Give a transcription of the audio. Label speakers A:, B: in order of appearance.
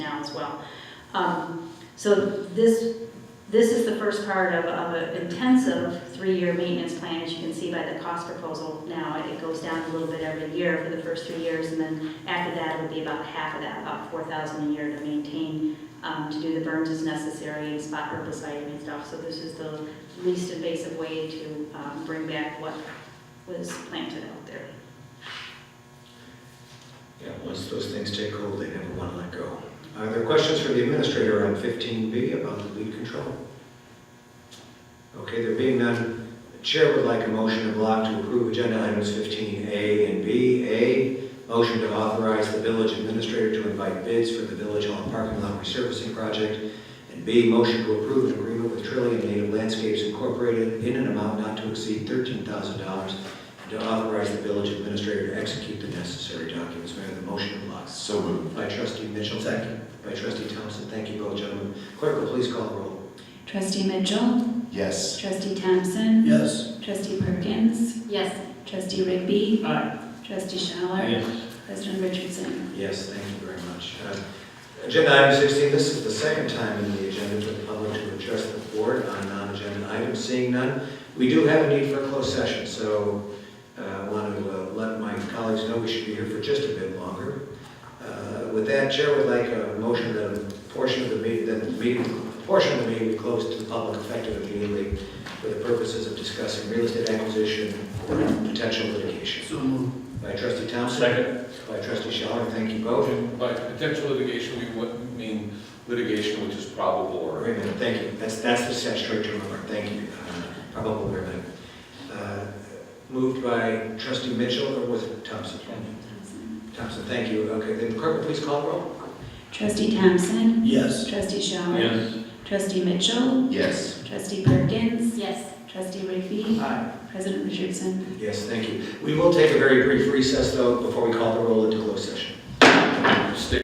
A: now as well. Um, So this, this is the first part of, of an intensive three-year maintenance plan, as you can see by the cost proposal now. It goes down a little bit every year for the first three years, and then after that, it would be about half of that, about four thousand a year to maintain, um, to do the burns as necessary and spot herbicide and stuff. So this is the least invasive way to, um, bring back what was planted out there.
B: Yeah, once those things take hold, they never want to let go. Are there questions for the administrator on 15B about the weed control? Okay, there being none, the chair would like a motion of block to approve agenda items 15A and B. A, motion to authorize the village administrator to invite bids for the Village Hall Parking Lot Resurfacing Project. And B, motion to approve an agreement with Trillium Native Landscapes Incorporated in an amount not to exceed $13,000 to authorize the village administrator to execute the necessary documents. May I have the motion in block?
C: So moved.
B: By trustee Mitchell. Second. By trustee Thompson. Thank you both, gentlemen. Clerk, will please call the roll.
D: Trustee Mitchell,
C: Yes.
D: Trustee Thompson,
C: Yes.
D: Trustee Perkins,
A: Yes,
D: Trustee Rigby,
C: Aye.
D: Trustee Schauer, President Richardson.
B: Yes, thank you very much. Uh, Agenda item 16, this is the second time in the agenda for the public to address the board on non-agenda items. Seeing none, we do have a need for a closed session, so uh, I want to uh, let my colleagues know we should be here for just a bit longer. Uh, With that, Chair would like a motion that a portion of the meeting, that the meeting, a portion of the meeting be closed to the public effective immediately for the purposes of discussing real estate acquisition or potential litigation.
C: So moved.
B: By trustee Thompson.
E: Second.
B: By trustee Schaller, thank you both.
E: By potential litigation, we would mean litigation which is probable or.
B: Wait a minute, thank you. That's, that's the statutory term of art, thank you. Uh, Probable agreement. Uh, Moved by trustee Mitchell, or was it Thompson?
D: Thompson.
B: Thompson, thank you. Okay, then clerk, will please call the roll.
D: Trustee Thompson,
C: Yes.
D: Trustee Schauer. Trustee Mitchell,
C: Yes.
D: Trustee Perkins,
A: yes.
D: Trustee Rigby,
B: Aye.
D: President Richardson.
B: Yes, thank you. We will take a very brief recess, though, before we call the roll into closed session.